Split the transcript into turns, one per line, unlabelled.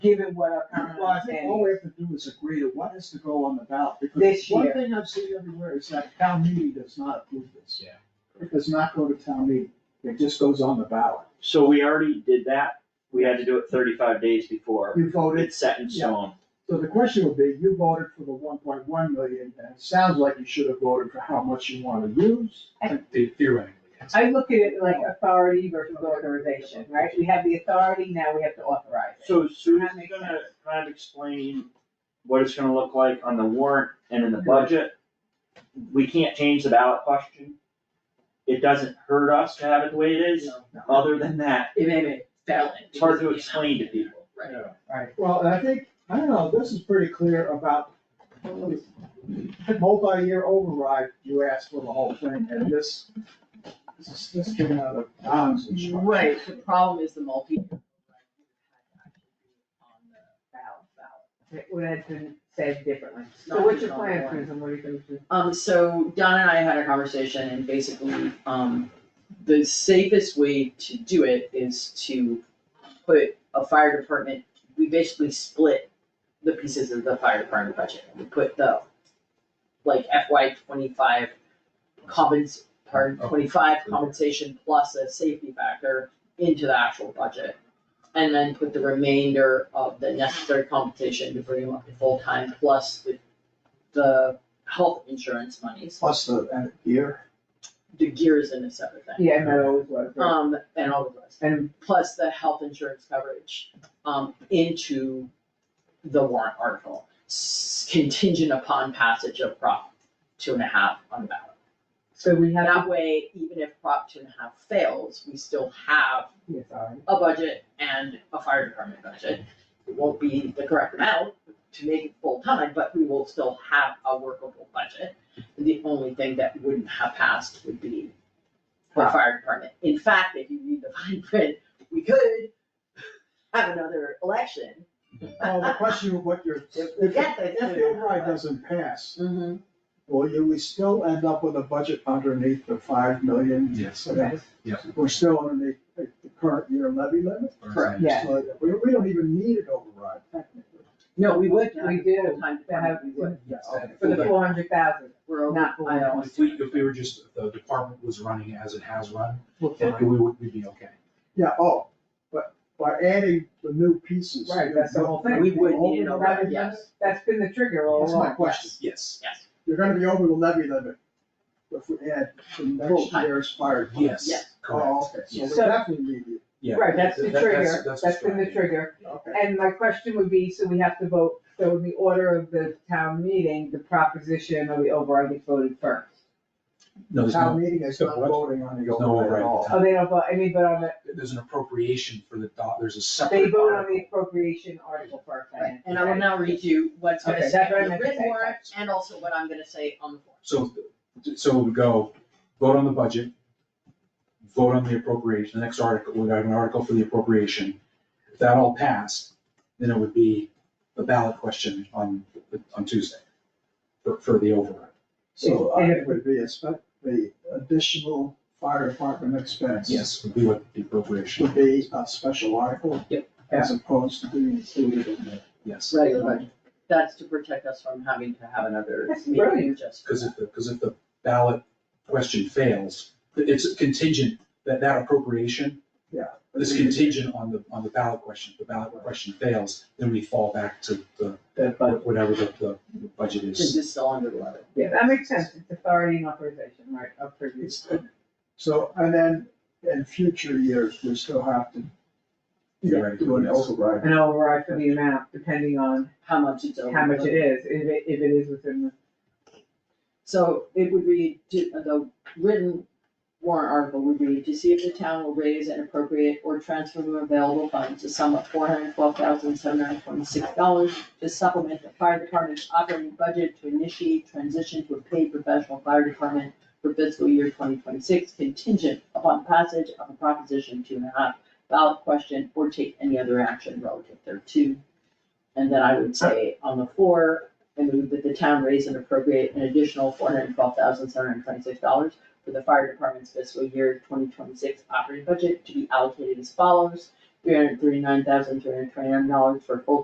given what our current
Well, I
law
think all
stands.
we have to do is agree to what is to go on the ballot, because
This
one
year.
thing I've seen everywhere is that town meeting does not approve this.
Yeah.
It does not go to town meeting, it just goes on the ballot.
So we already did that, we had to do it thirty-five days before,
You voted,
it's set in
Yeah.
stone.
so the question would be, you voted for the one point one million, and it sounds like you should have voted for how much you wanna use.
Theoretically, yes.
I look at it like authority versus authorization, right? We have the authority, now we have to authorize it.
So Sue's
That makes
gonna kind of explain what it's gonna look like on the warrant and in the budget. We can't change the ballot question. It doesn't hurt us to have it the way it is, other than that,
It made it valid.
it's hard to explain to people.
Right.
Well, and I think, I don't know, this is pretty clear about multi-year override, you asked for the whole thing, and this, this is, this is given out of bounds and stuff.
Right, the problem is the multi. On the ballot, ballot.
It would have been said differently.
It's
So
not
what's your
even on the
plan,
warrant.
Susan, what are you gonna do?
Um, so Don and I had a conversation and basically, um, the safest way to do it is to put a fire department, we basically split the pieces of the fire department budget. We put the, like FY twenty-five compens, pardon, twenty-five compensation plus a safety factor into the actual budget. And then put the remainder of the necessary compensation to bring them up to full-time plus the, the health insurance monies.
Plus the, and here,
The gears in a separate thing.
Yeah, no, always was, right?
Um, and all of those,
and
plus the health insurance coverage, um, into the warrant article. s- Contingent upon passage of Prop two and a half on the ballot.
so we have.
That way, even if Prop two and a half fails, we still have
Yeah, sorry.
a budget and a fire department budget. It won't be the correct amount to make it full-time, but we will still have a workable budget. The only thing that wouldn't have passed would be the fire department. In fact, if you read the fine print, we could have another election.
well, the question of what you're, if, if
Yes, I
if the override doesn't pass,
Mm-hmm.
will you, we still end up with a budget underneath the five million?
Yes.
So that-
Yeah.
We're still underneath the the current year levy limit,
Correct. Yeah.
so that we, we don't even need an override technically.
No, we would,
We
we
do,
did, full-time
to have-
department, we would.
Yes.
For the four hundred thousand,
We're over-
not for
I
one
know.
point
If we,
two.
if we were just, if the department was running as it has run,
Well,
then we would, we'd be okay.
Yeah, oh, but by adding the new pieces.
Right, that's the whole thing.
We would need
Over
an
the
override,
levy
yes.
limit?
That's been the trigger all
That's my
along.
question.
Yes.
Yes,
You're gonna be over the levy limit if we add the next
Full-time.
year's fire. department.
Yes,
Yes.
correct.
Oh, okay, so we
Yes.
So-
definitely need it.
Yeah,
Right, that's the
that- that-
trigger, that's been the
strategy.
trigger.
Okay.
And my question would be, so we have to vote, so in the order of the town meeting, the proposition of the override gets voted first.
No, there's
Town
no,
meeting is
so
not
what?
voting on the
There's no
override at
override.
all.
Oh, they don't vote, I mean, but on the,
there's an appropriation for the dot, there's a separate.
they vote on
article.
the appropriation article first, I
Right,
mean.
and I will now read you what's gonna
Okay,
say
that's what I
on the
meant to
written
say.
warrant and also what I'm gonna say on the form.
So, so it would go, vote on the budget, vote on the appropriation, the next article, we'd have an article for the appropriation. If that all passed, then it would be the ballot question on, on Tuesday for, for the override.
So uh, it would be a spe- the additional fire department expense.
Yes, would be what the appropriation,
Would be a special article.
Yep.
As opposed to being included in the.
yes.
Right, that's to protect us from having to have another
That's
meeting
brilliant.
just.
Because if, because if the ballot question fails, it's contingent, that, that appropriation is contingent on the, on the ballot question. If the ballot question fails, then we fall back to the,
That, but
whatever the, the the budget is.
This is still under the letter.
Yeah, that makes sense, it's authority and authorization, right, of previous.
It's, so, and then in future years, we still have to do an override.
An override for the amount, depending on
how much it's over.
how much it is, if it, if it is within the.
So it would read, to- the written warrant article would read, to see if the town will raise and appropriate or transfer from available funds to sum up four hundred twelve thousand seven hundred twenty-six dollars to supplement the fire department's operating budget to initiate transition to a paid professional fire department for fiscal year twenty twenty-six contingent upon passage of a proposition two and a half ballot question or take any other action relative thereto. And then I would say on the floor, I move that the town raise and appropriate an additional four hundred and twelve thousand, seven hundred and twenty-six dollars for the fire department's fiscal year twenty twenty-six operating budget to be allocated as follows. three hundred thirty-nine thousand, three hundred twenty-nine dollars for full